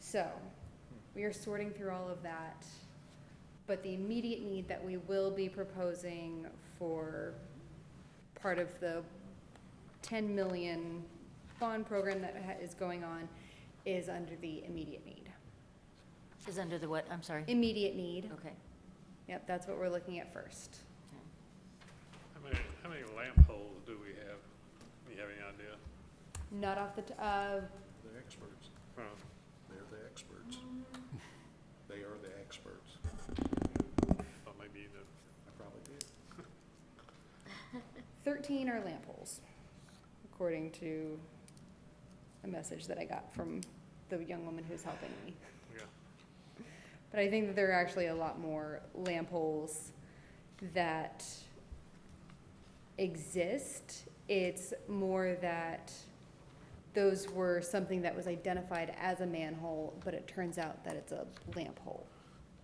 So, we are sorting through all of that, but the immediate need that we will be proposing for part of the ten million bond program that ha- is going on is under the immediate need. Is under the what, I'm sorry? Immediate need, Okay. yep, that's what we're looking at first. How many, how many lamp holes do we have? You have any idea? Not off the, t- uh, They're experts. Huh. They're the experts. They are the experts. Or maybe you know, I probably did. thirteen are lamp holes, according to a message that I got from the young woman who's helping me. yeah. But I think that there are actually a lot more lamp holes that exist. It's more that those were something that was identified as a manhole, but it turns out that it's a lamp hole.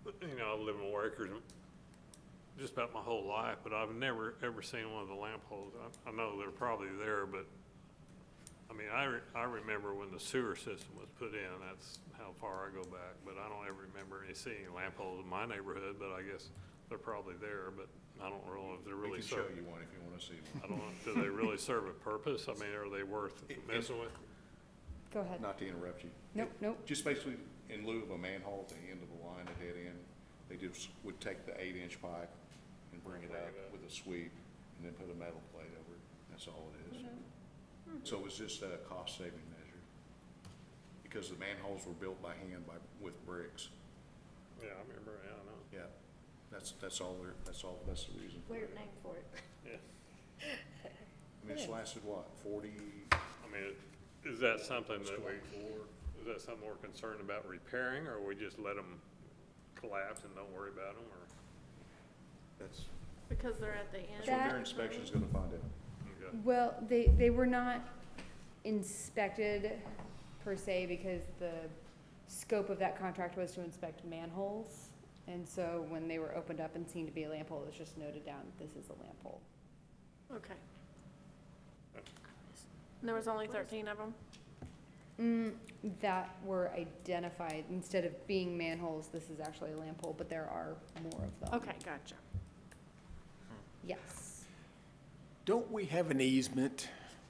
You know, I've lived in Workers just about my whole life, but I've never, ever seen one of the lamp holes. I, I know they're probably there, but, I mean, I, re- I remember when the sewer system was put in, that's how far I go back. But I don't ever remember any seeing lamp holes in my neighborhood, but I guess they're probably there, but I don't know if they're We really can show serving. you one if you want to see I don't know, do they really serve a purpose? I mean, are they worth It- it- messing with? Go one. ahead. Not to interrupt you. Nope, nope. Just basically, in lieu of a manhole at the end of the line, a dead end, they just would take the eight-inch pipe and bring it Bring up it up. with a sweep and then put a metal plate over it. That's all it is. So it was just a cost-saving measure. Because the manholes were built by hand by, with bricks. Yeah, I remember, yeah, I know. Yeah, that's, that's all there, that's all, that's the reason. for Weird it. name for it. I mean, it's lasted what, forty? I mean, is that something that we, is that something we're concerned about repairing, or we just let them collapse and don't worry about them, or? That's, Because they're at the that's end. what That- their inspection's gonna find out. okay. Well, they, they were not inspected per se because the scope of that contract was to inspect manholes. And so when they were opened up and seen to be a lamp hole, it was just noted down, this is a lamp hole. Okay. And there was only thirteen of them? Mm, that were identified, instead of being manholes, this is actually a lamp hole, but there are more of them. Okay, gotcha. Yes. Don't we have an easement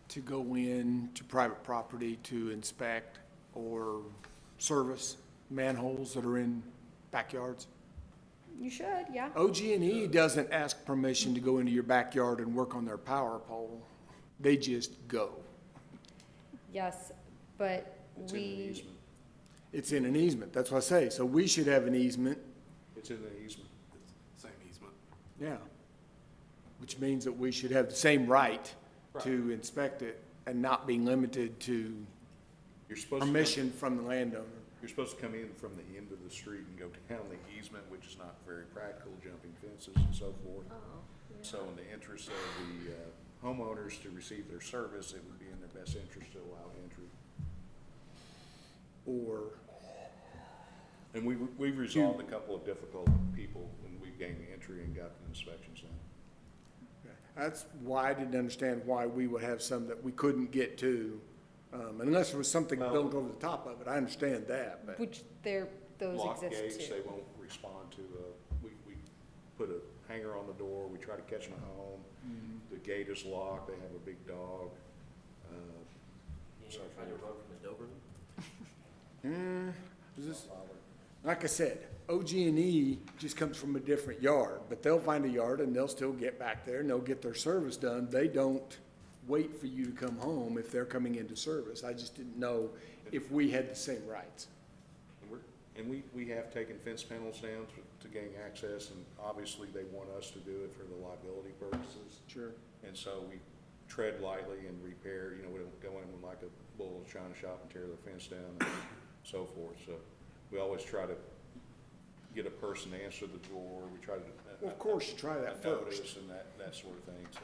to go in to private property to inspect or service manholes that are in backyards? You should, yeah. Oh. OG&E E doesn't ask permission to go into your backyard and work on their power pole. They just go. Yes, but It's in an we, easement. It's in an easement, that's what I say. So we should have an easement, It's in an easement. Same easement. yeah. Which means that we should have the same right to inspect it and not be limited to You're supposed to. come- permission from the landowner. You're supposed to come in from the end of the street and go down the easement, which is not very practical, jumping fences and so forth. Uh-huh, So in the interest of the uh, homeowners to receive their service, it would be in their best interest to allow entry. or And we, we've resolved a couple of difficult people when we gained entry and got the inspections done. That's why I didn't understand why we would have some that we couldn't get to, um, unless there was something built over the top of it. I understand that, but which there, those Lock exist gates, they too. won't respond to, uh, we, we put a hanger on the door, we try to catch them at home. Mm-hmm. The gate is locked, they have a big dog. uh, so forth. is this- like I said, OG&E E just comes from a different yard, but they'll find a yard and they'll still get back there and they'll get their service done. They don't wait for you to come home if they're coming into service. I just didn't know if we had the same rights. And we're- And we, we have taken fence panels down to, to gain access, and obviously they want us to do it for the liability purposes. Sure. And so we tread lightly and repair, you know, we don't go in with like a bull china shop and tear the fence down and so forth. So we always try to get a person to answer the door, we try to. Well, of course, you try that a notice first. And that, that sort of thing, so.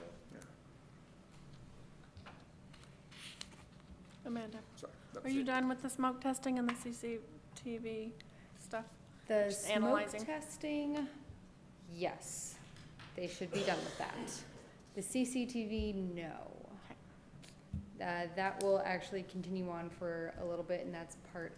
Amanda, Sorry. that are was you it. done with the smoke testing and the CCTV stuff? The Just smoke analyzing. testing, yes, they should be done with that. The CCTV, no. Uh, that will actually continue on for a little bit, and that's part